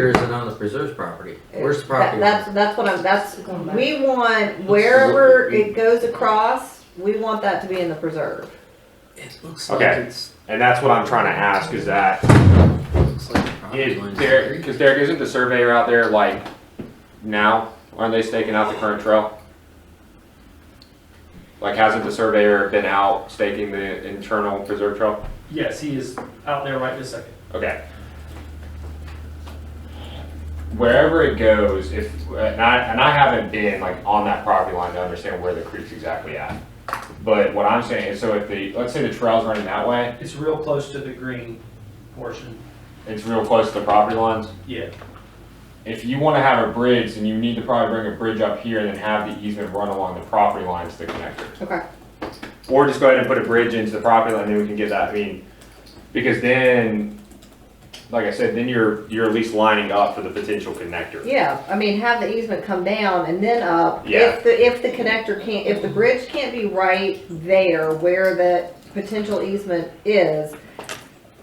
Here is it on the preserves property? Where's the That- property? That's, that's what I'm, that's, we want wherever it goes across, we want that to be in the preserve. It looks Okay. like it's. And that's what I'm trying to ask is that, looks like the property is line's Derek, there. because Derek, isn't the surveyor out there like now? Aren't they staking out the current trail? Like, hasn't the surveyor been out staking the internal preserve trail? Yes, he is out there right this second. Okay. Wherever it goes, if, and I, and I haven't been like on that property line to understand where the creek's exactly at. But what I'm saying is, so if the, let's say the trail's running that way, It's real close to the green portion. it's real close to the property lines. Yeah. if you want to have a bridge, then you need to probably bring a bridge up here and then have the easement run along the property lines to connect it. Okay. Or just go ahead and put a bridge into the property line, then we can get that, I mean, because then, like I said, then you're, you're at least lining up for the potential connector. Yeah, I mean, have the easement come down and then up. Yeah. If the, if the connector can't, if the bridge can't be right there where the potential easement is,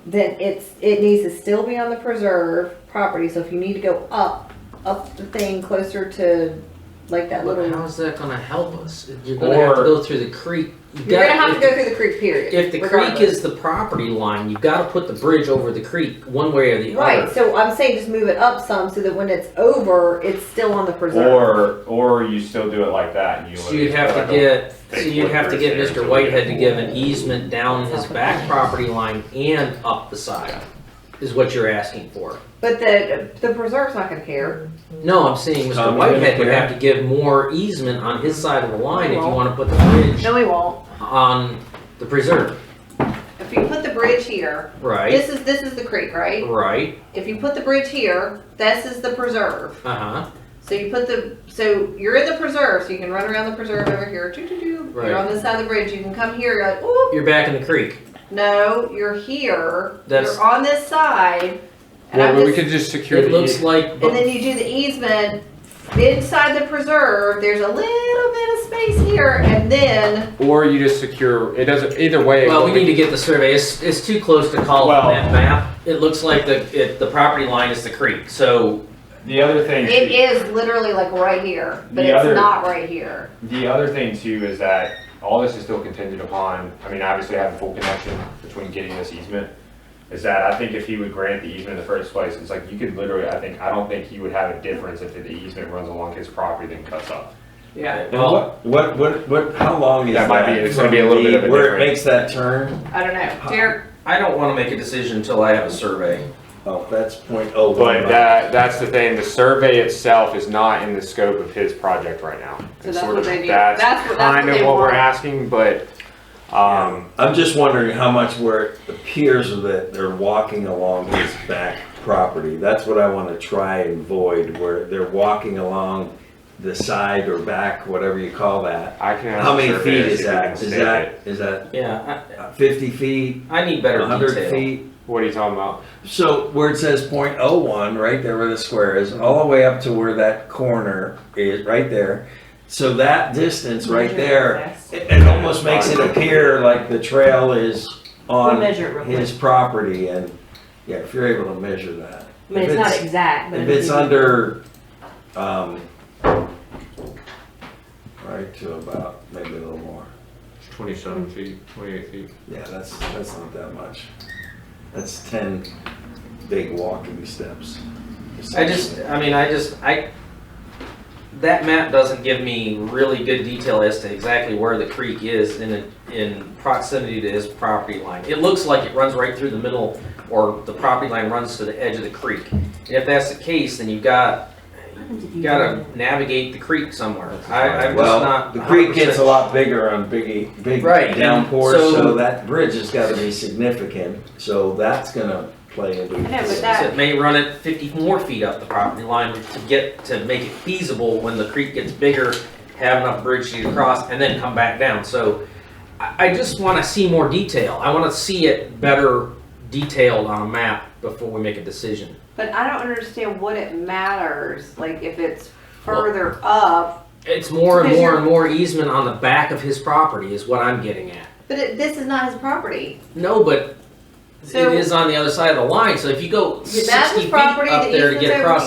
then it's, it needs to still be on the preserve property, so if you need to go up, up the thing closer to like that But little, how's that gonna help us? You're gonna have to Or- go through the creek. You you're gonna gotta- have to if- go through the creek period. If the creek regardless. is the property line, you've gotta put the bridge over the creek one way or the Right, other. so I'm saying just move it up some so that when it's over, it's still on the preserve. Or, or you still do it like that and you. So you'd have to get, so Take you'd have to get footprints Mr. there until we get Whitehead to give an more. easement down his back property line and up the side, is what you're asking for. But the, the preserve's not gonna care. No, I'm saying Mr. Um, Whitehead would yeah. have to give more easement on his side of the line if you Well- wanna put the bridge No, he won't. on the preserve, If you put the bridge here, right? this is, this is the creek, right? Right, If you put the bridge here, this is the preserve. uh-huh, So you put the, so you're in the preserve, so you can run around the preserve over here, doo doo doo. Right. You're on this side of the bridge, you can come here, you're like, ooh, you're back in the creek. no, you're here, That's- you're on this side. And I'm Well, we just- could just secure It the, looks eas- like, And then you do the easement inside the preserve, there's a little bit of space here, and then, or you just secure, it doesn't, either way. well, what we need to get the survey, it's, it's too close to call Well- on that map. It looks like the, it, the property line is the creek, so The other thing. it is literally like right here, but The it's other- not right here. The other thing too is that all this is still contingent upon, I mean, obviously having full connection between getting this easement. Is that I think if he would grant the easement in the first place, it's like you could literally, I think, I don't think he would have a difference if the easement runs along his property then cuts up. Yeah. And what, what, what, what, how long is that? That might be- it's gonna be a little bit of a Where it different- makes that turn, I don't know, Derek, I don't wanna make a decision until I have a survey. oh, that's point oh one. But that, that's the thing, the survey itself is not in the scope of his project right now. So It's that's sort what of- they need. That's That's what- that's kind what of they what we're want. asking, but, um, I'm just wondering how much where it appears that they're walking along his back property. That's what I wanna try and avoid, where they're walking along the side or back, whatever you call that. I can. ask How many the surveyor feet if is he can that? Is stake that, it. is that Yeah, fifty feet, I, I need better hundred detail. feet? What are you talking about? So where it says .01, right there where the square is, all the way up to where that corner is, right there. So that distance right there, it, it almost makes it appear like the trail is on his property and, yeah, if you're able to measure that. I mean, If it's not it's- exact, but. If it'd it's be- under, um, right to about, maybe a little more. Twenty-seven feet, twenty-eight feet. Yeah, that's, that's not that much. That's ten big walking steps. I just, I mean, I just, I, that map doesn't give me really good detail as to exactly where the creek is in, a- in proximity to his property line. It looks like it runs right through the middle, or the property line runs to the edge of the creek. And if that's the case, then you've got, you gotta navigate the creek somewhere. I, I'm just Well, not. the creek gets a 100% lot bigger on big, big Right, and downpours, so- so that bridge has gotta be significant, so that's gonna play into know, but it. that- So It may run it fifty more feet up the property line to get, to make it feasible when the creek gets bigger, have enough bridge to get across and then come back down. So I, I just wanna see more detail. I wanna see it better detailed on a map before we make a decision. but I don't understand what it matters, like if it's further up, It's more and Because more you're- and more easement on the back of his property is what I'm getting at. but it, this is not his property. No, but It So- is on the other side of the line, so if you go Yeah, that's sixty his feet property, up the there to easement's get over across,